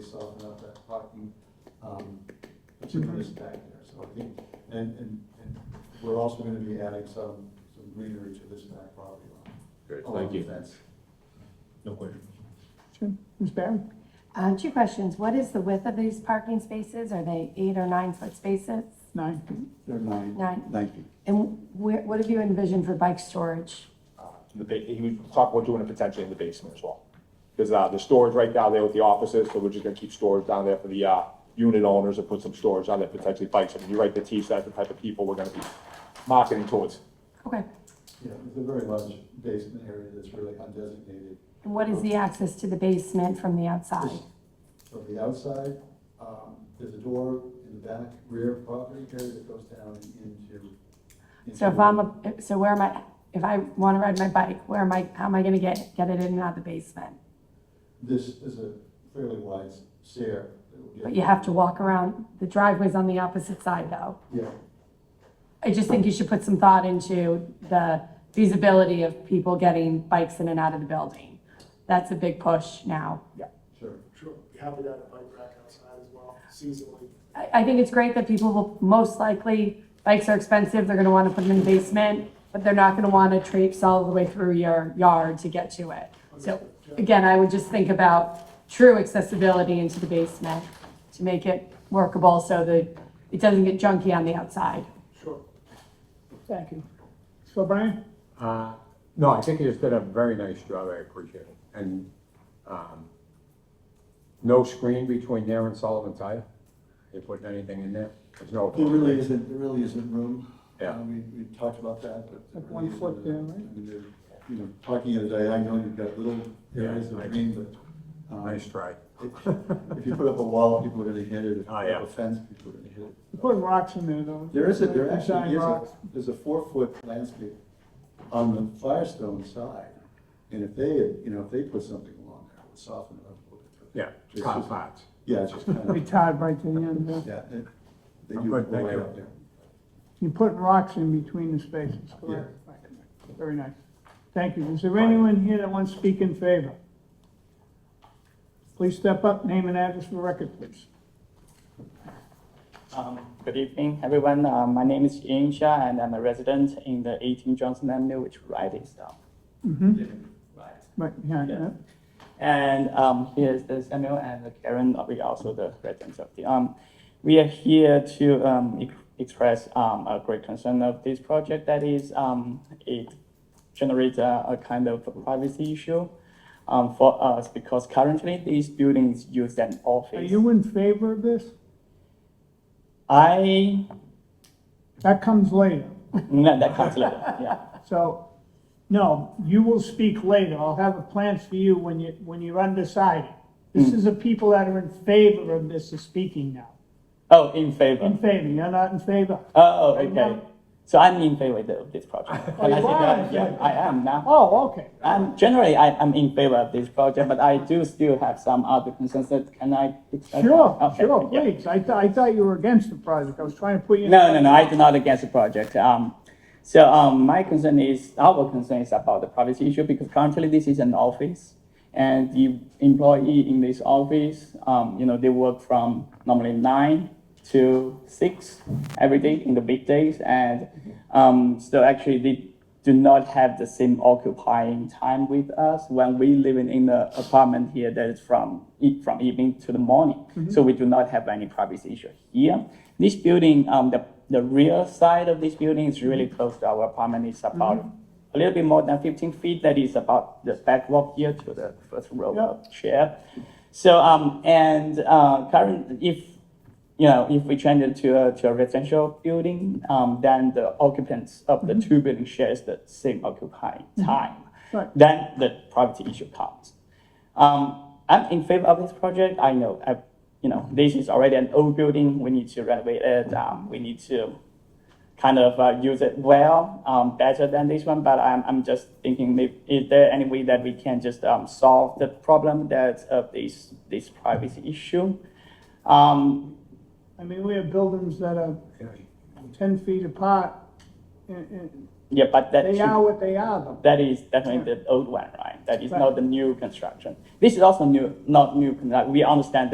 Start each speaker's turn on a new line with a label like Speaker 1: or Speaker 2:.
Speaker 1: soften up that parking, um, particularly back there, so I think, and, and, and we're also gonna be adding some, some greenery to this back property line.
Speaker 2: Great,
Speaker 1: along
Speaker 3: Um,
Speaker 2: thank
Speaker 1: the
Speaker 2: you.
Speaker 1: fence.
Speaker 2: No question.
Speaker 4: Sure. Ms. Barry?
Speaker 5: Uh, two questions. What is the width of these parking spaces? Are they eight or nine foot spaces?
Speaker 4: Nine.
Speaker 1: They're nine,
Speaker 5: Nine.
Speaker 1: nine feet.
Speaker 5: And where, what have you envisioned for bike storage?
Speaker 6: the ba- he was talking about doing it potentially in the basement as well. Because, uh, the storage right down there with the offices, so we're just gonna keep storage down there for the, uh, unit owners and put some storage down there, potentially bikes. I mean, you're right, the T that's the type of people we're gonna be marketing towards.
Speaker 5: Okay.
Speaker 1: Yeah, it's a very large basement area that's really undesignated.
Speaker 5: And what is the access to the basement from the outside?
Speaker 1: Just From the outside, um, there's a door in the back rear property area that goes down into.
Speaker 5: So if
Speaker 1: into-
Speaker 5: I'm a, so where am I, if I wanna ride my bike, where am I, how am I gonna get, get it in and out of the basement?
Speaker 1: This is a fairly wide stair. that will get-
Speaker 5: But you have to walk around, the driveway's on the opposite side though.
Speaker 1: Yeah,
Speaker 5: I just think you should put some thought into the feasibility of people getting bikes in and out of the building. That's a big push now.
Speaker 1: sure.
Speaker 3: Sure, we have it at a bike rack outside as well, seasonally.
Speaker 5: I, I think it's great that people will, most likely, bikes are expensive, they're gonna wanna put them in the basement, but they're not gonna wanna traipse all the way through your yard to get to it. So, again, I would just think about true accessibility into the basement to make it workable so that it doesn't get junky on the outside.
Speaker 3: Sure.
Speaker 4: Thank you. So Brian?
Speaker 7: Uh, No, I think you just did a very nice job, I appreciate it. And um, no screen between there and Sullivan Tire? You putting anything in there? There's no.
Speaker 1: There really isn't, there really isn't room.
Speaker 7: Yeah.
Speaker 1: Uh, We, we talked about that, but. there
Speaker 4: Like
Speaker 1: really
Speaker 4: one foot
Speaker 1: isn't
Speaker 4: there,
Speaker 1: room.
Speaker 4: right?
Speaker 1: I mean, there- You know, talking at a diagonal, you've got little
Speaker 7: Yeah,
Speaker 1: areas of
Speaker 7: I-
Speaker 1: green, but. um,
Speaker 7: Nice try.
Speaker 1: If if you put up a wall, people are gonna hit it. If you
Speaker 7: Oh,
Speaker 1: put
Speaker 7: yeah.
Speaker 1: up a fence, people are gonna hit it.
Speaker 4: You put rocks in there though.
Speaker 1: There is a, there
Speaker 4: Like
Speaker 1: actually
Speaker 4: giant
Speaker 1: is a,
Speaker 4: rocks.
Speaker 1: there's a four-foot landscape on the Firestone side. And if they, had, you know, if they put something along there, it would soften it up a little bit.
Speaker 7: Yeah,
Speaker 1: Just-
Speaker 7: top spots.
Speaker 1: Yeah, it's just kind
Speaker 4: They
Speaker 1: of,
Speaker 4: tied right to the end there.
Speaker 1: yeah, it- they
Speaker 7: I'm
Speaker 1: do
Speaker 7: good, thank
Speaker 1: way
Speaker 7: you.
Speaker 1: up there.
Speaker 4: You put rocks in between the spaces, correct? Right. Very nice. Thank you. Is there anyone here that wants to speak in favor? Please step up, name and address for the record, please.
Speaker 8: Um, Good evening, everyone. Uh, My name is Ian Xia, and I'm a resident in the 18 Johnson Avenue, which right is down.
Speaker 4: Mm-hmm,
Speaker 8: Right.
Speaker 4: right behind
Speaker 8: Yeah.
Speaker 4: that.
Speaker 8: And um, here's the Samuel and Karen, uh, we are also the residents of the, um, we are here to um, ex- express um, a great concern of this project that is, um, it generates a, a kind of a privacy issue um, for us because currently these buildings use an office.
Speaker 4: Are you in favor of this?
Speaker 8: I,
Speaker 4: That comes later.
Speaker 8: no, that comes later, yeah.
Speaker 4: So, no, you will speak later. I'll have a plans for you when you, when you're undecided.
Speaker 8: Hmm.
Speaker 4: This is the people that are in favor of this is speaking now.
Speaker 8: Oh, in favor.
Speaker 4: In favor, you're not in favor?
Speaker 8: Oh,
Speaker 4: Right
Speaker 8: okay.
Speaker 4: now?
Speaker 8: So I'm in favor of this project.
Speaker 4: Oh, you
Speaker 8: I think
Speaker 4: are
Speaker 8: I,
Speaker 4: in
Speaker 8: yeah,
Speaker 4: favor.
Speaker 8: I am now.
Speaker 4: Oh, okay.
Speaker 8: I'm generally I, I'm in favor of this project, but I do still have some other concerns that can I.
Speaker 4: Sure,
Speaker 8: Okay,
Speaker 4: sure,
Speaker 8: Uh, yeah.
Speaker 4: please. I thought, I thought you were against the project. I was trying to put you. in-
Speaker 8: No, no, no. I do not against the project. Um, so um, my concern is our concern is about the privacy issue because currently this is an office, and the employee in this office, um, you know, they work from normally nine to six every day in the big days, and um, so actually they do not have the same occupying time with us when we living in the apartment here that is from e- from evening to the morning. So we do not have any privacy issue here. This building, um, the the rear side of this building is really close to our apartment. It's about a little bit more than 15 feet. That is about the back walk here to the first row of chair. So um, and uh, current if you know, if we change it to a, to a residential building, um, then the occupants of the two buildings shares the same occupying time.
Speaker 4: Right.
Speaker 8: Then the privacy issue comes. Um, I'm in favor of this project. I know, I, you know, this is already an old building. We need to renovate it. Um, we need to kind of uh, use it well, um, better than this one. But I'm, I'm just thinking, maybe, is there any way that we can just um, solve the problem that of this this privacy issue? Um,
Speaker 4: I mean, we have buildings that are
Speaker 7: Really.
Speaker 4: ten feet apart. and- and
Speaker 8: Yeah, but that
Speaker 4: They
Speaker 8: should-
Speaker 4: are what they are though.
Speaker 8: that is definitely the old one, right? That is
Speaker 4: Right.
Speaker 8: not the new construction. This is also new, not new. construct- We understand